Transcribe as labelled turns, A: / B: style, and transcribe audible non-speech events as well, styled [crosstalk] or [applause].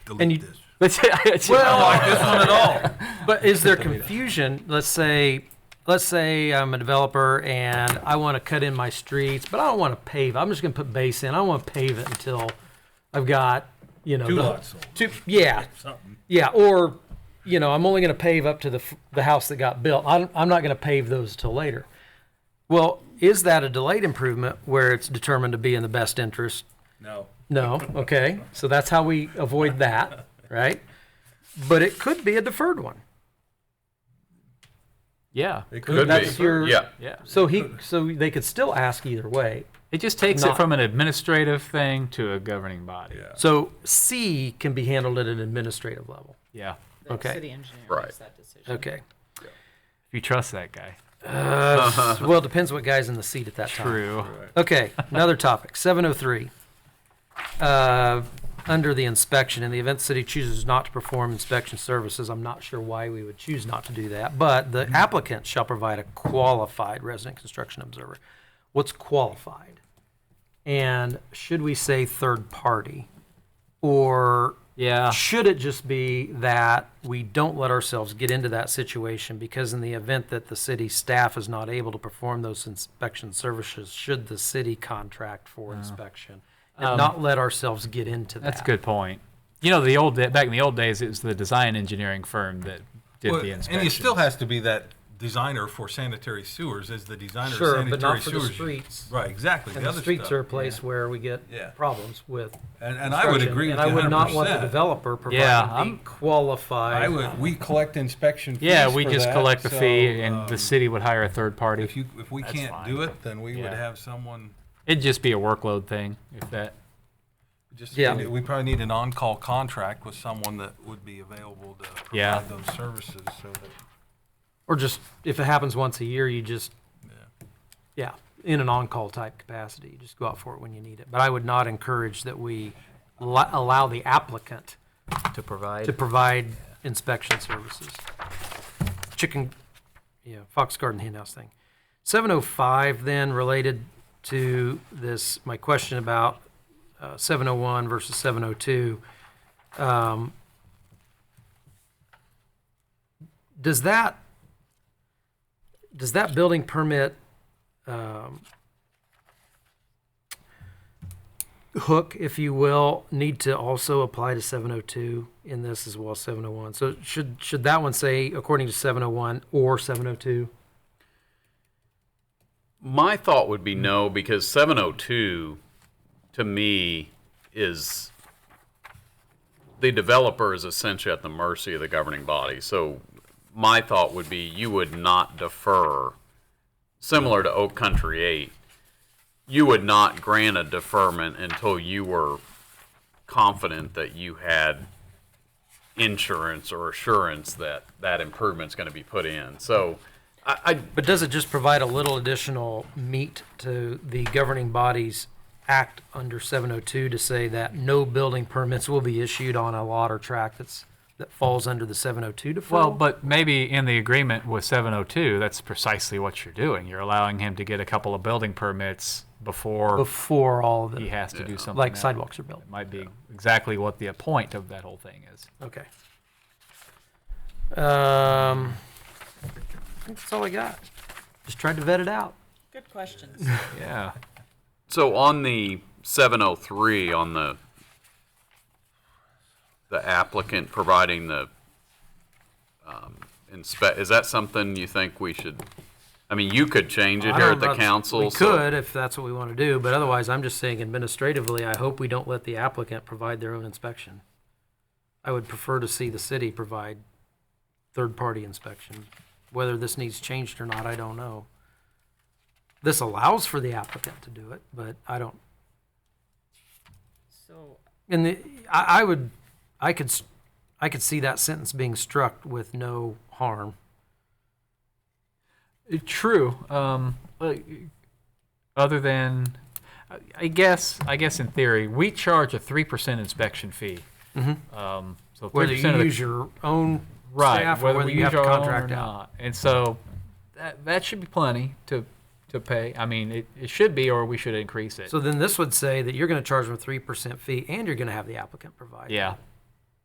A: And
B: [laughs]
A: you,
C: delete this.
A: let's say,
C: I don't like this one at all.
B: But is there confusion? Let's say, let's say I'm a developer and I want to cut in my streets, but I don't want to pave. I'm just going to put base in. I don't want to pave it until I've got, you know,
C: Two
B: the-
C: lots sold.
B: Two, yeah,
C: Something.
B: yeah, or you know, I'm only going to pave up to the f- the house that got built. I'm I'm not going to pave those till later. Well, is that a delayed improvement where it's determined to be in the best interest
C: No.
B: no, okay. So that's how we avoid that, right? But it could be a deferred one.
A: yeah,
C: It
B: Could
C: could
B: that's
C: be.
B: your
D: Yeah.
A: yeah.
B: so he so they could still ask either way.
A: It just takes it
B: Not-
A: from an administrative thing to a governing body.
C: Yeah.
B: So C can be handled at an administrative level.
A: Yeah.
E: The
B: Okay.
E: city engineer
D: Right.
E: makes that decision.
B: Okay.
A: If you trust that guy.
B: Uh, well, it depends what guy's in the seat at that time.
A: True.
B: Okay, another topic, 703. Uh, Under the inspection, in the event the city chooses not to perform inspection services, I'm not sure why we would choose not to do that, but the applicant shall provide a qualified resident construction observer. What's qualified? And should we say third party? Or
A: Yeah.
B: should it just be that we don't let ourselves get into that situation because in the event that the city staff is not able to perform those inspection services, should the city contract for inspection? And not let ourselves get into that.
A: Um, That's a good point. You know, the old back in the old days, it was the design engineering firm that did
F: Well,
A: the inspection.
F: And it still has to be that designer for sanitary sewers as the designer
B: Sure,
F: of sanitary
B: but not for the
F: sewers.
B: streets.
F: Right, exactly.
B: And
F: the
B: the
F: other
B: streets
F: stuff.
B: are a place where we
F: Yeah.
B: get problems with
F: And, and I would
B: construction,
F: agree with
B: And
F: you
B: I would not want the
F: 100%.
B: developer
A: Yeah,
B: providing
A: I'm-
B: the qualified.
F: I would. We collect inspection fees.
A: yeah, we
F: for
A: just
F: that,
A: collect the
F: so,
A: fee, and
F: um,
A: the city would hire a third party.
F: If you if we
A: That's
F: can't
A: fine.
F: do it, then we
A: Yeah.
F: would have someone.
A: It'd just be a workload thing if that.
F: Just
B: Yeah.
F: we, we probably need an on-call contract with someone that would be available to provide
A: Yeah.
F: those services. So that
B: Or just, if it happens once a year, you just, yeah, in an on-call type capacity, you just go out for it when you need it. But I would not encourage that we lo- allow the applicant
A: to provide.
B: to provide inspection services. Chicken, yeah, Fox Garden hen house thing. 705 then related to this, my question about uh, 701 versus 702. Um, Does that, does that building permit um, hook, if you will, need to also apply to 702 in this as well, 701? So should, should that one say according to 701 or 702?
D: My thought would be no, because 702 to me is the developer is essentially at the mercy of the governing body. So my thought would be you would not defer, similar to Oak Country 8, you would not grant a deferment until you were confident that you had insurance or assurance that that improvement's going to be put in. So I, I
B: But does it just provide a little additional meat to the governing body's act under 702 to say that no building permits will be issued on a lot or tract that's, that falls under the 702 deferral?
A: Well, but maybe in the agreement with 702, that's precisely what you're doing. You're allowing him to get a couple of building permits before
B: Before all of
A: he
B: the,
A: has to do something.
B: like
A: else.
B: sidewalks are built.
A: It might be exactly what the point of that whole thing is.
B: Okay. Um, I think that's all I got. Just tried to vet it out.
E: Good questions.
A: Yeah.
D: So on the 703, on the, the applicant providing the um, inspe, is that something you think we should, I mean, you could change it
B: I
D: here
B: don't
D: at the
B: know if
D: council.
B: We
D: so-
B: could, if that's what we want to do, but otherwise, I'm just saying administratively, I hope we don't let the applicant provide their own inspection. I would prefer to see the city provide third-party inspection. Whether this needs changed or not, I don't know. This allows for the applicant to do it, but I don't,
E: So
B: and the, I, I would, I could, s- I could see that sentence being struck with no harm.
A: Uh, True. Um, uh, other than, I- I guess, I guess in theory, we charge a three percent inspection fee. Um, so
B: Mm-hmm. Whether
A: three
B: you
A: percent of
B: use
A: the
B: your own
A: right,
B: staff or whether
A: we
B: you have
A: use
B: to
A: our own
B: contract
A: or
B: out.
A: not, and so that that should be plenty to to pay. I mean, it, it should be, or we should increase it.
B: So then this would say that you're gonna charge them a three percent fee and you're gonna have the applicant provide.
A: yeah,